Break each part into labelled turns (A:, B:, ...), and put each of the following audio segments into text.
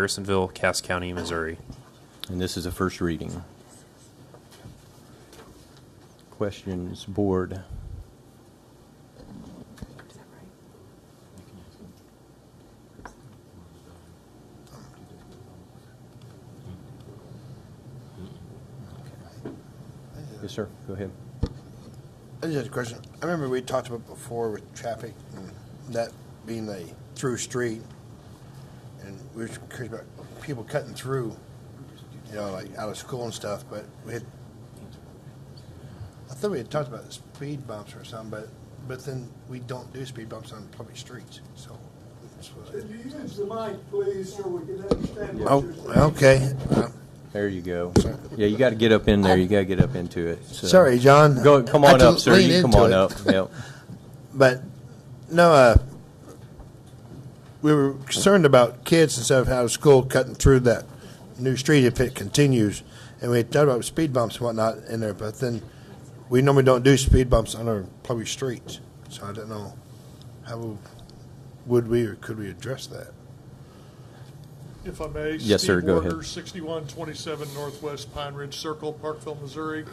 A: Harrisonville, Cass County, Missouri.
B: And this is a first reading. Questions, board? Yes, sir, go ahead.
C: I just had a question. I remember we talked about before with traffic and that being a through street. And we were curious about people cutting through, you know, like out of school and stuff, but we had, I thought we had talked about speed bumps or something, but, but then we don't do speed bumps on public streets, so. that's what
D: Could
C: I-
D: you use the mic, please, so we can understand what
C: Oh,
D: you're saying?
C: okay. Uh,
B: There you go. Yeah, you gotta get up in there, you gotta get up into it. so-
C: Sorry, John.
B: Go, come
C: I
B: on
C: had to
B: up, sir,
C: lean
B: you come
C: into
B: on
C: it.
B: up, yep.
C: But no, uh, we were concerned about kids and stuff out of school cutting through that new street if it continues. And we had thought about speed bumps and whatnot in there, but then we normally don't do speed bumps on our public streets. So I don't know how would we or could we address that?
E: If I may.
B: Yes, sir,
E: Steve
B: go ahead.
E: Warner, 6127 Northwest Pine Ridge Circle, Parkville, Missouri.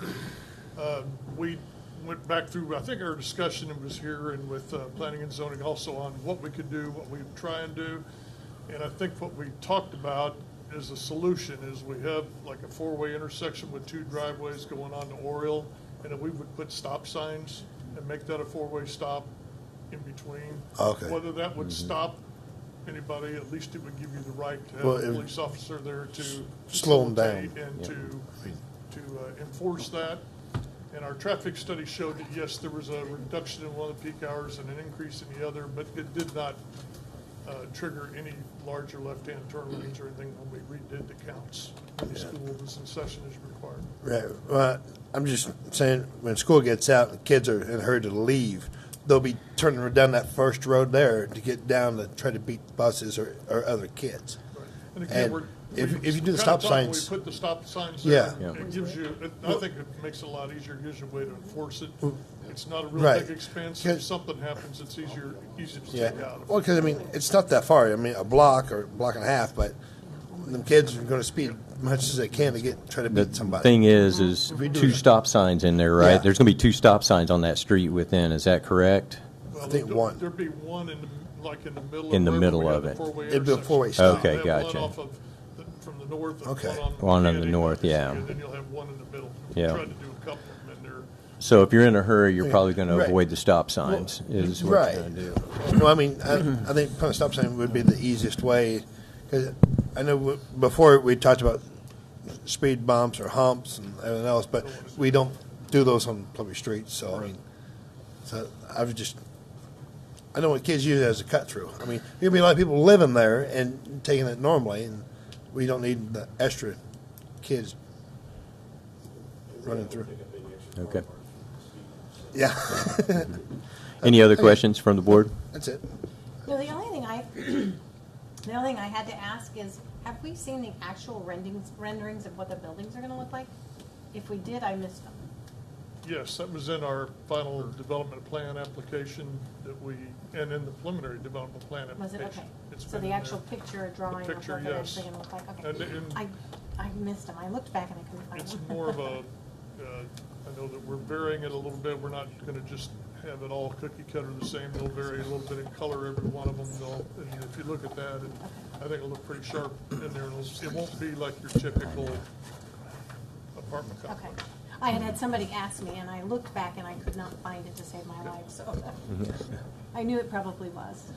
E: Uh, We went back through, I think our discussion was here and with uh, planning and zoning also on what we could do, what we try and do. And I think what we talked about is a solution, is we have like a four-way intersection with two driveways going on to Oriole, and if we would put stop signs and make that a four-way stop in between.
C: Okay.
E: Whether that would
B: Mm-hmm.
E: stop anybody, at least it would give you the right to have
C: Well,
E: a
C: it-
E: police officer there to.
C: Slow 'em down.
E: facilitate And to, to uh, enforce that. And our traffic study showed that, yes, there was a reduction in one of the peak hours and an increase in the other, but it did not uh, trigger any larger left-hand turn lanes or anything when we redid the counts. when The school was in session is required.
C: Right. Well, I'm just saying when school gets out and kids are in a hurry to leave, they'll be turning down that first road there to get down to try to beat buses or, or other kids.
E: And again,
C: And
E: we're.
C: if-
E: we
C: if you do the
E: kinda
C: stop
E: talked when
C: signs-
E: We put the stop signs
C: Yeah.
E: there.
C: Yeah.
E: It gives you, it- I think it makes it a lot easier, gives you a way to enforce it. It's not a real
C: Right.
E: big expense.
C: Yeah.
E: If something happens, it's easier, easy to
C: Yeah.
E: take out.
C: Well, because I mean, it's not that far. I mean, a block or block and a half, but them kids are going to speed as much as they can to get try to
B: The
C: beat somebody.
B: thing is, is
C: If we do
B: two
C: that.
B: stop signs in there, right?
C: Yeah.
B: There's going to be two stop signs on that street within, is that correct?
E: Well,
C: I think
E: there'd-
C: one.
E: There'd be one in, the like in the middle.
B: In the
E: wherever
B: middle
E: we have
B: of
E: the
B: it.
E: four-way
C: It'd be a
E: intersection.
C: four-way
E: So
B: stop. Okay,
E: you'll have one
B: gotcha.
E: off of the- From the north. and
C: Okay.
B: One on the
E: Kennedy,
B: north, yeah.
E: And then you'll have one in the middle.
B: Yeah.
E: Tried to do a couple of them in there.
B: So if you're in a hurry, you're probably going to
C: Right.
B: avoid the stop signs, is what
C: right.
B: you're going to do.
C: No, I mean, I, I think putting a stop sign would be the easiest way. Because I know w- before we talked about speed bumps or humps and everything else, but we don't do those on public streets. So I mean, so I was just. I know what kids use it as a cut through. I mean, there'd be a lot of people living there and taking it normally, and we don't need the extra kids running through.
B: Okay.
C: Yeah,
B: Any other questions from the board?
C: that's it.
F: No, the only thing I, the only thing I had to ask is, have we seen the actual renderings, renderings of what the buildings are gonna look like? If we did, I missed them.
E: Yes, that was in our final development plan application that we, and in the preliminary development plan
F: Was it,
E: application.
F: okay.
E: It's
F: So
E: been
F: the
E: in
F: actual
E: there.
F: picture, or drawing of
E: picture,
F: what they're
E: yes.
F: actually gonna look like,
E: And-
F: okay.
E: and-
F: I, I missed them. I looked back and I couldn't find
E: It's
F: them.
E: more of a, uh, I know that we're varying it a little bit. We're not going to just have it all cookie cutter the same. They'll vary a little bit in color, every one of them. They'll, and if you look at that, it- I think it'll look pretty sharp in there. It'll, it won't be like your typical apartment
F: Okay.
E: complex.
F: I had had somebody ask me and I looked back and I could not find it to save my life, so
G: Mm-hmm.
C: mm-hmm.
F: I knew it probably was.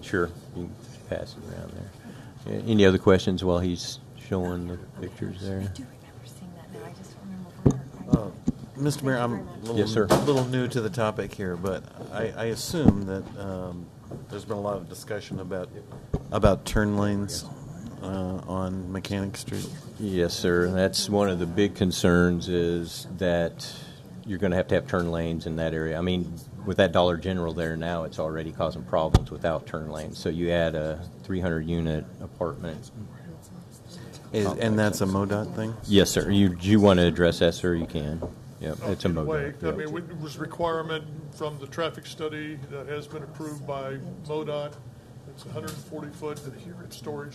B: Sure, you can pass it around there. A- Any other questions while he's showing the pictures
F: I
B: there?
F: do remember seeing that now. I just don't remember where.
G: Mr. Uh, Mayor, I'm a little,
B: Yes, sir.
G: little new to the topic here, but I, I assume that um, there's been a lot of discussion about about turn lanes uh, on Mechanic Street.
B: Yes, sir, and that's one of the big concerns is that you're going to have to have turn lanes in that area. I mean, with that Dollar General there now, it's already causing problems without turn lanes. So you add a 300-unit apartment.
G: Is, and that's a MoDOT thing.
B: Yes, sir, you, you want to address that, sir, you can. Yep, it's a
E: Uh, in way.
B: MoDOT.
E: I
B: yep.
E: mean, we- it was requirement from the traffic study that has been approved by MoDOT It's 140 foot adherent storage